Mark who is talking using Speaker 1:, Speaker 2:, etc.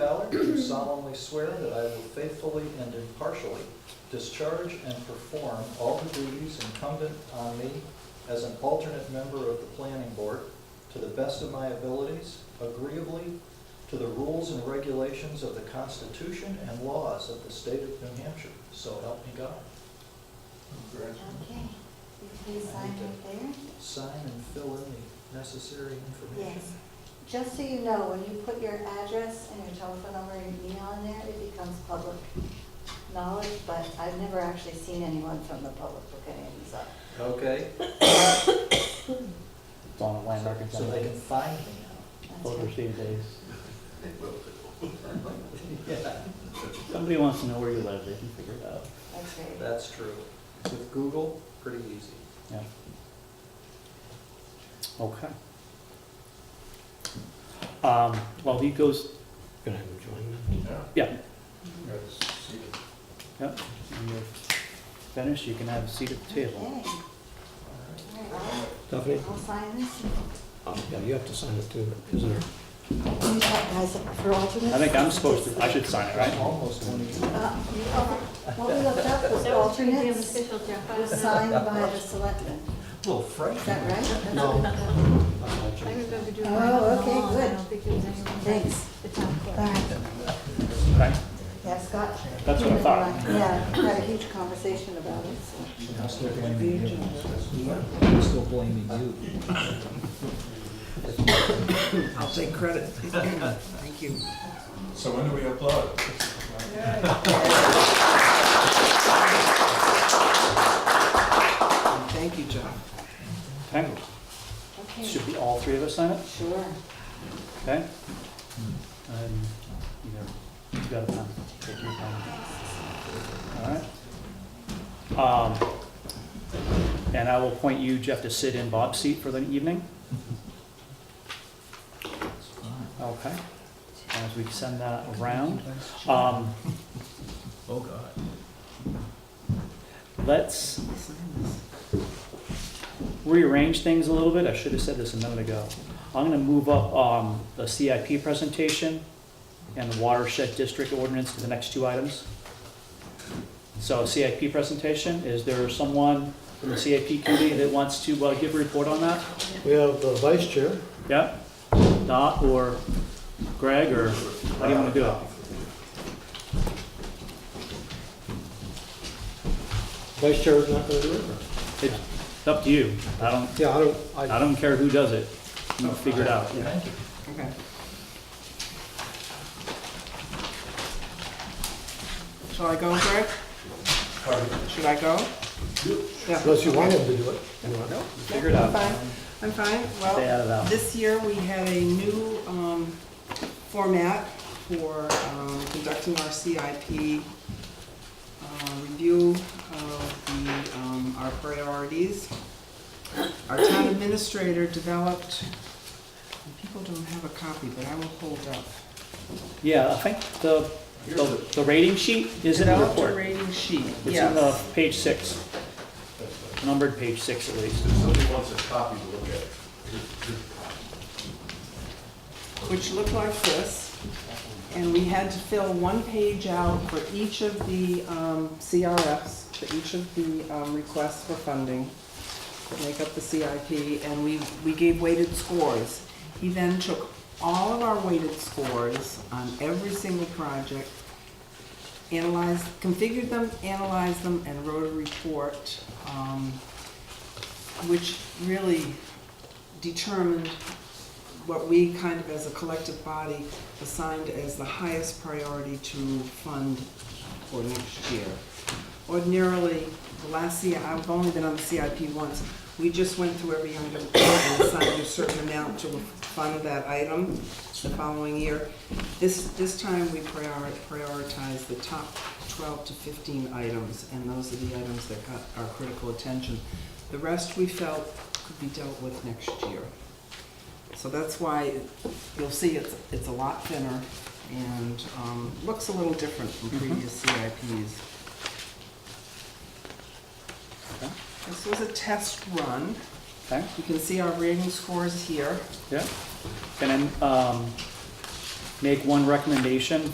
Speaker 1: do solemnly swear that I will faithfully and impartially discharge and perform all the duties incumbent on me as an alternate member of the planning board to the best of my abilities, agreeably to the rules and regulations of the Constitution and laws of the state of New Hampshire. So help me God.
Speaker 2: Okay, you please sign right there.
Speaker 1: Sign and fill in the necessary information.
Speaker 2: Yes. Just so you know, when you put your address and your telephone number and email in there, it becomes public knowledge, but I've never actually seen anyone from the public look at it, so.
Speaker 1: Okay?
Speaker 3: It's on a land record
Speaker 1: So they can
Speaker 3: someday.
Speaker 1: find me now.
Speaker 2: that's
Speaker 3: Voter
Speaker 2: good.
Speaker 3: received days.
Speaker 1: Yeah.
Speaker 3: Somebody wants to know where you live, they can figure it out.
Speaker 2: That's great.
Speaker 1: That's true. With Google, pretty easy.
Speaker 3: Yeah. Okay. Um, while he goes,
Speaker 4: Gonna have him join them.
Speaker 3: yeah,
Speaker 4: Yeah.
Speaker 3: yep, when you're finished, you can have a seat at the table.
Speaker 2: Okay,
Speaker 1: All right.
Speaker 2: all right,
Speaker 4: Stephanie?
Speaker 2: I'll I'll sign this.
Speaker 4: Oh, yeah, you have to sign it too, isn't there?
Speaker 2: Can you sign guys up for alternates?
Speaker 3: I think I'm supposed to, I should sign it,
Speaker 1: I'm
Speaker 3: right?
Speaker 1: almost one of you.
Speaker 2: Uh, you- oh, What we looked up was
Speaker 5: That was pretty damn
Speaker 2: alternates
Speaker 5: official, Jeff. I
Speaker 2: was
Speaker 5: don't know.
Speaker 2: signed by the selectmen,
Speaker 1: Little
Speaker 2: is
Speaker 1: French.
Speaker 2: that right?
Speaker 1: No.
Speaker 5: I remember doing.
Speaker 2: Oh,
Speaker 5: mine on the
Speaker 2: okay,
Speaker 5: lawn. I
Speaker 2: good.
Speaker 5: don't think there was anyone.
Speaker 2: Thanks.
Speaker 5: The town clerk.
Speaker 2: All right.
Speaker 3: Okay,
Speaker 2: Yeah, Scott.
Speaker 3: That's what I thought.
Speaker 2: Yeah, we had a huge conversation about it, so.
Speaker 1: Now still blaming you. Still blaming you.
Speaker 4: I'll take credit. Thank you.
Speaker 6: So when do we upload?
Speaker 4: Thank you, John.
Speaker 3: okay,
Speaker 2: Okay,
Speaker 3: should be all three of us sign it,
Speaker 2: sure.
Speaker 3: okay? And, you know, you got a pen, take your time. All right. Um, And I will appoint you, Jeff, to sit in Bob's seat for the evening. Okay, as we send that around. Um,
Speaker 1: Oh, God.
Speaker 3: Let's rearrange things a little bit. I should have said this a minute ago. I'm going to move up um, the CIP presentation and the watershed district ordinance to the next two items. So CIP presentation, is there someone from the CIP committee that wants to uh, give a report on that?
Speaker 4: We have the vice chair.
Speaker 3: Yeah? Dot or Greg or how do you want to do it?
Speaker 4: Vice chair is not gonna do it?
Speaker 3: It's up to you. I don't,
Speaker 4: Yeah, I don't,
Speaker 3: I don't care who does it. You figure it out.
Speaker 1: Thank you.
Speaker 7: Shall I go, Greg? Should I go? Yeah,
Speaker 4: unless you want him to do it. You know,
Speaker 3: Figure it out.
Speaker 7: fine. I'm fine.
Speaker 3: Stay
Speaker 7: Well,
Speaker 3: out of that.
Speaker 7: this year we had a new um, format for um, conducting our CIP uh, review of the, um, our priorities. Our town administrator developed, and people don't have a copy, but I will hold up.
Speaker 3: Yeah, I think the, the, the rating sheet is in the
Speaker 7: Developed a
Speaker 3: report.
Speaker 7: rating sheet, yes.
Speaker 3: It's in the page six. Numbered page six at least.
Speaker 8: If somebody wants a copy to look at,
Speaker 7: which looked like this. And we had to fill one page out for each of the um, CRFs, for each of the um, requests for funding that make up the CIP, and we, we gave weighted scores. He then took all of our weighted scores on every single project, analyzed, configured them, analyzed them, and wrote a report, um, which really determined what we kind of as a collective body assigned as the highest priority to fund for next year. Ordinarily, the last year, I've only been on the CIP once, we just went through every item and assigned a certain amount to fund that item the following year. This, this time, we prior- prioritized the top 12 to 15 items, and those are the items that got our critical attention. The rest, we felt, could be dealt with next year. So that's why you'll see it's, it's a lot thinner and um, looks a little different from previous CIPs.
Speaker 3: Okay.
Speaker 7: This was a test run.
Speaker 3: Okay,
Speaker 7: You can see our rating scores here.
Speaker 3: yeah. Can I, um, make one recommendation